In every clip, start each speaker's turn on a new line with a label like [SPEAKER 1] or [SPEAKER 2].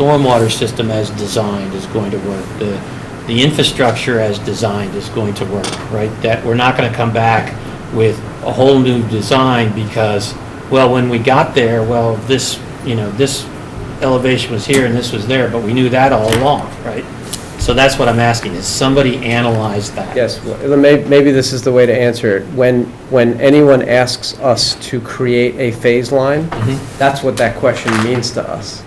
[SPEAKER 1] stormwater system as designed is going to work, the, the infrastructure as designed is going to work, right? That, we're not gonna come back with a whole new design because, well, when we got there, well, this, you know, this elevation was here and this was there, but we knew that all along, right? So that's what I'm asking, is somebody analyze that?
[SPEAKER 2] Yes, well, may- maybe this is the way to answer it. When, when anyone asks us to create a phase line,
[SPEAKER 1] Mhm.
[SPEAKER 2] that's what that question means to us.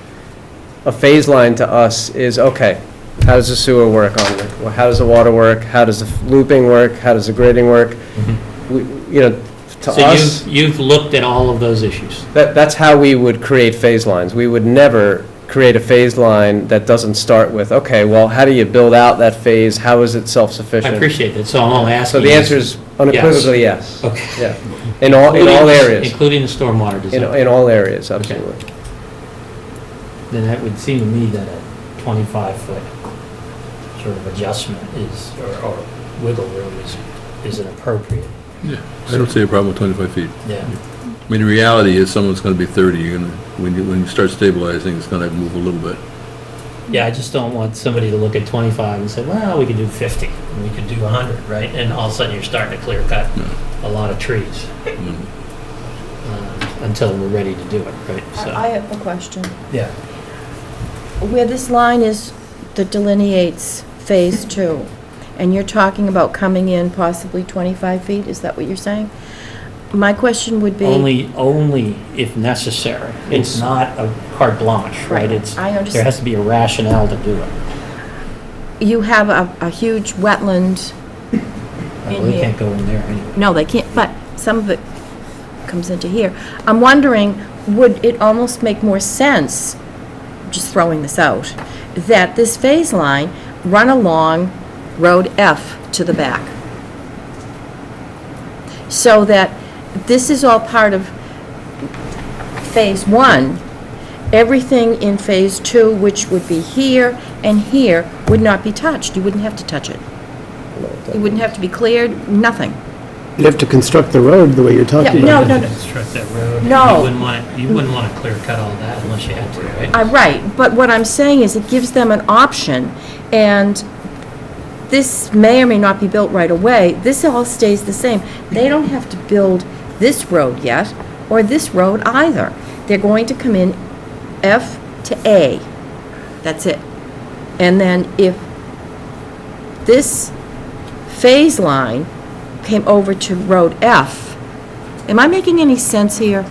[SPEAKER 2] A phase line to us is, okay, how does the sewer work on it? Well, How does the water work? How does the looping work? How does the grading work? We, you know, Mm-hmm. to
[SPEAKER 1] So
[SPEAKER 2] us,
[SPEAKER 1] you've, you've looked at all of those issues?
[SPEAKER 2] that, that's how we would create phase lines. We would never create a phase line that doesn't start with, okay, well, how do you build out that phase? How is it
[SPEAKER 1] I
[SPEAKER 2] self-sufficient?
[SPEAKER 1] appreciate that, so I'm all
[SPEAKER 2] So
[SPEAKER 1] asking.
[SPEAKER 2] the answer is unequivocally yes.
[SPEAKER 1] Okay.
[SPEAKER 2] Yeah, in all, in all areas,
[SPEAKER 1] Including the stormwater
[SPEAKER 2] in,
[SPEAKER 1] design.
[SPEAKER 2] in all areas, absolutely.
[SPEAKER 1] Then that would seem to me that a 25-foot sort of adjustment is, or- or wiggle room is, is inappropriate.
[SPEAKER 3] Yeah, I don't see a problem with 25 feet.
[SPEAKER 1] Yeah.
[SPEAKER 3] I mean, the reality is someone's going to be 30, you're going to, when you, when you start stabilizing, it's going to move a little bit.
[SPEAKER 1] Yeah, I just don't want somebody to look at 25 and say, well, we could do 50, and we could do 100, right? And all of a sudden, you're starting to clear cut
[SPEAKER 3] No.
[SPEAKER 1] a lot of trees
[SPEAKER 3] Mm.
[SPEAKER 1] um, until we're ready to do it, right?
[SPEAKER 4] I I
[SPEAKER 1] So,
[SPEAKER 4] have a question.
[SPEAKER 1] yeah.
[SPEAKER 4] Where this line is that delineates Phase Two, and you're talking about coming in possibly 25 feet, is that what you're saying? My question would be...
[SPEAKER 1] Only, only if necessary. It's
[SPEAKER 2] It's-
[SPEAKER 1] not a carte blanche, right?
[SPEAKER 4] Right,
[SPEAKER 1] It's,
[SPEAKER 4] I understand.
[SPEAKER 1] there has to be a rationale to do it.
[SPEAKER 4] You have a a huge wetland,
[SPEAKER 1] Well,
[SPEAKER 4] In
[SPEAKER 1] We
[SPEAKER 4] here.
[SPEAKER 1] can't go in there anyway.
[SPEAKER 4] no, they can't, but some of it comes into here. I'm wondering, would it almost make more sense, just throwing this out, that this phase line run along Road F to the back? so that this is all part of Phase 1. Everything in Phase 2, which would be here and here, would not be touched. You wouldn't have to touch it. It wouldn't have to be cleared, nothing.
[SPEAKER 5] You'd have to construct the road the way you're talking
[SPEAKER 4] Yeah,
[SPEAKER 5] about.
[SPEAKER 4] no, no, no.
[SPEAKER 1] Construct that road. and
[SPEAKER 4] No.
[SPEAKER 1] You wouldn't want, you wouldn't want to clear cut all that unless you had to, right?
[SPEAKER 4] I'm right, but what I'm saying is it gives them an option, and this may or may not be built right away. This all stays the same. They don't have to build this road yet, or this road either. They're going to come in F to A. That's it. And then if this phase line came over to Road F, am I making any sense here?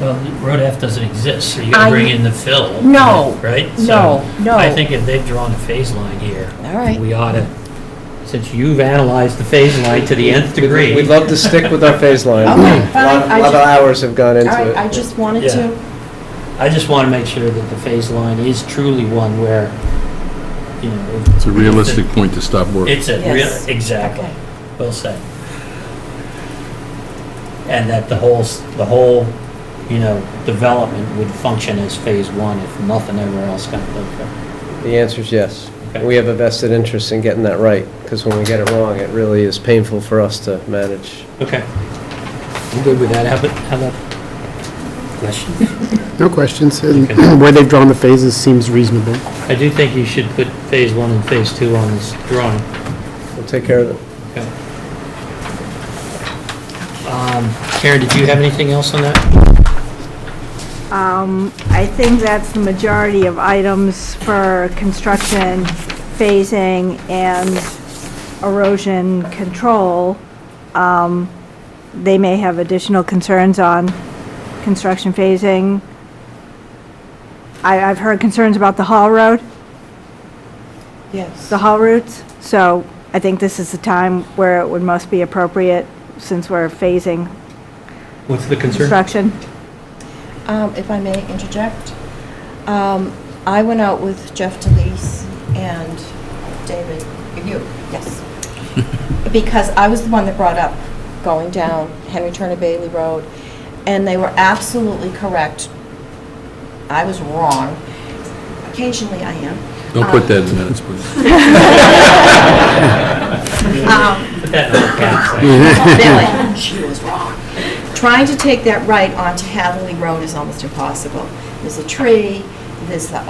[SPEAKER 1] Well, Road F doesn't exist, so you gotta
[SPEAKER 4] I-
[SPEAKER 1] bring in the fill.
[SPEAKER 4] No,
[SPEAKER 1] Right? So,
[SPEAKER 4] no, no.
[SPEAKER 1] I think if they've drawn a phase line here.
[SPEAKER 4] All right.
[SPEAKER 1] We ought to, since you've analyzed the phase line to the nth degree.
[SPEAKER 2] We'd love to stick with our phase line.
[SPEAKER 4] Okay,
[SPEAKER 2] A lot,
[SPEAKER 4] fine, I
[SPEAKER 2] a lot of
[SPEAKER 4] ju-
[SPEAKER 2] hours have gone
[SPEAKER 4] All right,
[SPEAKER 2] into
[SPEAKER 4] I
[SPEAKER 2] it.
[SPEAKER 4] just wanted
[SPEAKER 1] Yeah.
[SPEAKER 4] to...
[SPEAKER 1] I just want to make sure that the phase line is truly one where, you know. if-
[SPEAKER 3] It's a realistic point to stop work.
[SPEAKER 1] It's a real,
[SPEAKER 4] Yes.
[SPEAKER 1] exactly,
[SPEAKER 4] Okay.
[SPEAKER 1] well said. And that the whole, s- the whole, you know, development would function as phase one if nothing ever else got built up.
[SPEAKER 2] The answer is yes.
[SPEAKER 1] Okay.
[SPEAKER 2] We have a vested interest in getting that right, because when we get it wrong, it really is painful for us to manage.
[SPEAKER 1] Okay. I'm good with that. How about, how about questions?
[SPEAKER 5] No questions, and
[SPEAKER 1] Okay.
[SPEAKER 5] where they've drawn the phases seems reasonable.
[SPEAKER 1] I do think you should put phase one and phase two on this drawing.
[SPEAKER 2] We'll take care of it.
[SPEAKER 1] Okay. Um, Karen, did you have anything else on that?
[SPEAKER 6] Um, I think that's the majority of items for construction, phasing, and erosion control. Um, They may have additional concerns on construction phasing. I, I've heard concerns about the Hall Road,
[SPEAKER 4] Yes.
[SPEAKER 6] the Hall routes, so I think this is the time where it would most be appropriate, since we're phasing
[SPEAKER 1] What's the concern?
[SPEAKER 6] construction.
[SPEAKER 4] Um, If I may interject, um, I went out with Jeff DeLeese and David, you, yes, because I was the one that brought up going down Henry Turner Bailey Road, and they were absolutely correct. I was wrong. Occasionally I am.
[SPEAKER 3] Don't put that in minutes, please.
[SPEAKER 4] Um,
[SPEAKER 1] Put that in all caps.
[SPEAKER 4] They're like, she was wrong. Trying to take that right onto Hathley Road is almost impossible. There's a tree, there's the